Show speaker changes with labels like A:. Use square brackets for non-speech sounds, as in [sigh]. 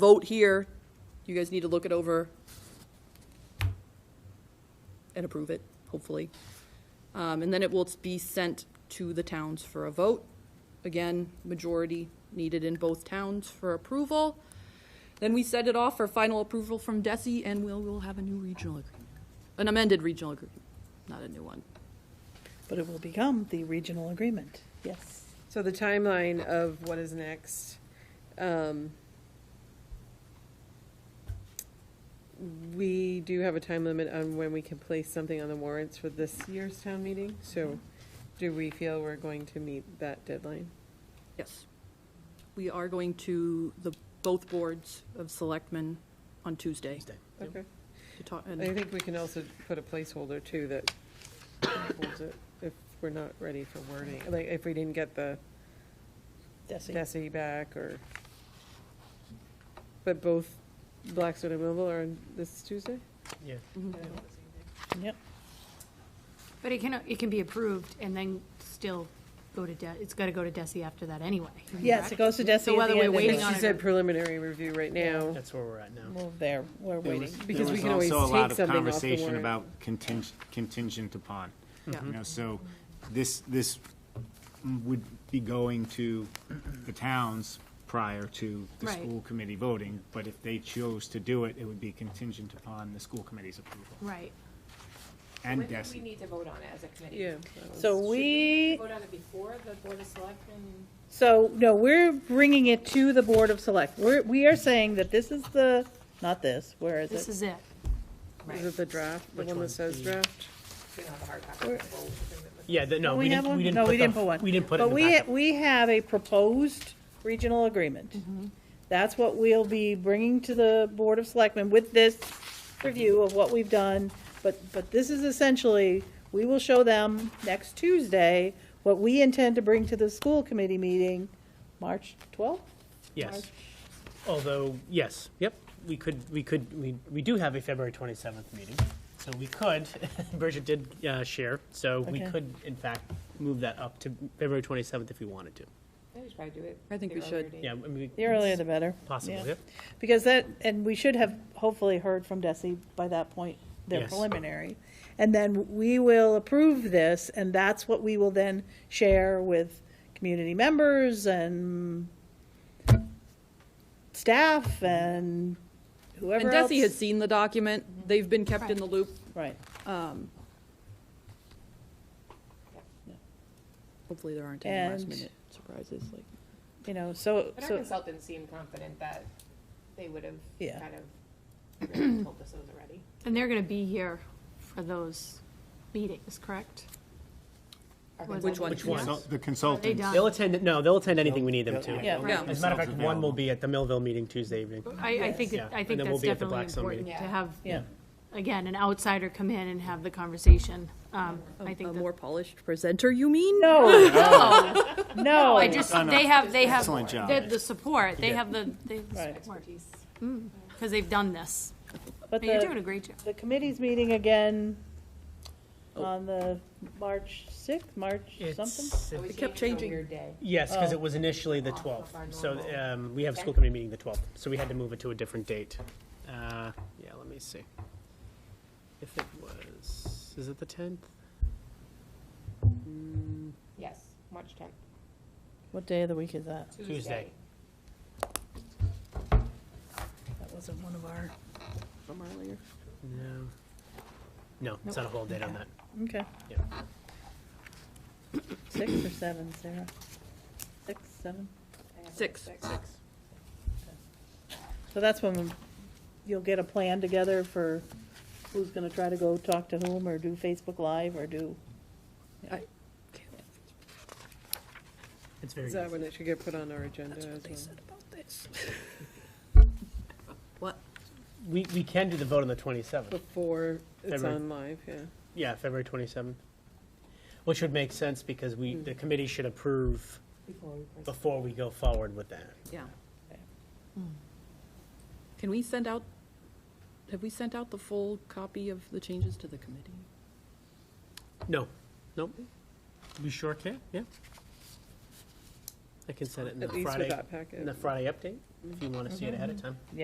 A: vote here. You guys need to look it over and approve it, hopefully. Um, and then it will be sent to the towns for a vote. Again, majority needed in both towns for approval. Then we send it off for final approval from DESI, and we'll, we'll have a new regional agreement, an amended regional agreement, not a new one.
B: But it will become the regional agreement, yes.
C: So the timeline of what is next, um, we do have a time limit on when we can place something on the warrants for this year's town meeting, so do we feel we're going to meet that deadline?
A: Yes. We are going to the, both boards of selectmen on Tuesday
C: Okay.
A: to talk,
C: I
A: and
C: think we can also put a placeholder too that holds it if we're not ready for wording, like if we didn't get the
B: Desi.
C: Desi back or, but both Blackstone and Millville are on this Tuesday?
D: Yeah.
B: Mm-hmm. Yep,
E: But it can, it can be approved and then still go to, De- it's got to go to DESI after that anyway.
B: yes, it goes to Desi at
E: So whether
B: the
E: we're
B: end of
E: waiting
B: the-
E: on
C: She
E: it.
C: said preliminary review right now.
D: That's where we're at now.
B: Well, there, we're
D: There
B: waiting.
D: was-
C: Because
D: there
C: we
D: was
C: can always
D: also a
C: take
D: lot of
C: something off the
D: Conversation
C: warrant.
D: about contingent, contingent upon,
A: Yeah.
D: you know, so this, this would be going to the towns prior to the
E: Right.
D: school committee voting, but if they chose to do it, it would be contingent upon the school committe's approval
E: Right.
D: and
F: When do we
D: DESI.
F: need to vote on it as a committee?
C: Yeah.
B: So we,
F: Vote on it before the Board of Selectmen?
B: so, no, we're bringing it to the Board of Select. We're, we are saying that this is the, not this, where is
E: This
B: it?
E: is it.
C: Is it the draft, the
D: Which
C: one
D: one?
C: that says
D: The-
C: draft?
F: We don't have a hard copy of the vote agreement with
D: Yeah, the- no, we
B: have
D: didn't,
B: one?
D: we didn't.
B: No,
D: put
B: we
D: the-
B: didn't put one.
D: We didn't put it in the
B: But
D: packet.
B: we, we have a proposed regional agreement.
D: Mm-hmm.
B: That's what we'll be bringing to the Board of Selectmen with this review of what we've done. But, but this is essentially, we will show them next Tuesday what we intend to bring to the school committee meeting, March twelfth?
D: Yes. Although, yes, yep, we could, we could, we, we do have a February 27th meeting, so we could, [laughs] Bridget did uh, share, so we
B: Okay.
D: could, in fact, move that up to February 27th if we wanted to.
F: I think we should probably do it.
A: I think
F: the
A: we should.
F: earlier date.
D: Yeah, I mean,
B: The earlier the better.
D: possible,
B: Yeah.
D: yep.
B: Because that, and we should have hopefully heard from Desi by that point, their
D: Yes.
B: preliminary. And then we will approve this, and that's what we will then share with community members and staff and
A: and
B: whoever else.
A: Desi has seen the document. They've been kept in the loop.
B: Right,
A: Hopefully there aren't any last
B: And-
A: minute surprises like.
B: you know, so,
F: But our
B: so,
F: consultants seemed confident that they would have
B: Yeah.
F: kind of told us those already.
E: And they're going to be here for those meetings, correct?
F: Our
E: Which
F: consultants-
A: one?
D: Which one?
E: Yes.
D: The
E: They
D: consultants.
E: done?
D: They'll attend, no, they'll attend anything we need them to.
B: Yeah.
A: Yeah.
D: As a matter of fact, one will be at the Millville meeting Tuesday evening.
E: I, I think,
D: Yeah,
E: that- I
D: and
E: think
D: then we'll
E: that's
D: be at the
E: definitely
D: Blackstone
E: important to
F: meeting. Yeah.
E: have,
B: yeah.
E: again, an outsider come in and have the conversation. Um, I
A: A
E: think
A: more
E: that.
A: polished presenter, you mean? [laughs]
B: No,
E: No,
B: no.
E: I just,
D: Done a
E: they have, they have,
D: excellent job.
E: they have the support. They
D: did.
E: have the, they have the
B: Right.
E: support. Because they've done this.
B: But
E: And you're doing a
B: the,
E: great job.
B: the committee's meeting again on the March sixth, March something?
D: It's-
F: We
D: it's-
A: It kept
F: changed
A: changing.
F: to a weird day.
D: Yes, because
B: Oh.
D: it was initially the
F: Off of
D: 12th.
F: our
D: So
F: normal.
D: um, we have school
F: Okay.
D: committee meeting the 12th, so we had to move it to a different date. Uh, Yeah, let me see. If it was, is it the 10th?
F: Yes, March tenth,
B: What day of the week is that?
D: Tuesday.
F: Tuesday.
B: That wasn't one of our,
A: From earlier.
D: No. No, it's not a whole date on that.
B: okay.
D: Yeah.
B: Six or seven, Sarah? Six, seven?
F: I have it
A: Six.
F: at
B: So that's when you'll get a plan together for who's gonna try to go talk to whom, or do Facebook Live, or do,
D: It's very
C: Is
D: easy.
C: that when it should get put on our agenda as well?
B: about this.
A: What?
D: We, we can do the vote on the 27th.
B: Oh.
C: Before it's
D: February.
C: on live, yeah.
D: Yeah, February 27th. Which would make sense because we,
B: Hmm.
D: the committee should approve
F: Before we press-
D: before we go forward with that.
A: Yeah.
E: Hmm.
A: Can we send out, have we sent out the full copy of the changes to the committee?
D: No, nope. We sure can, yeah. I I can send it in the
C: At least Mm-hmm.
D: Friday,
C: with that packet.
D: in the Friday update, if you want to see it ahead of time.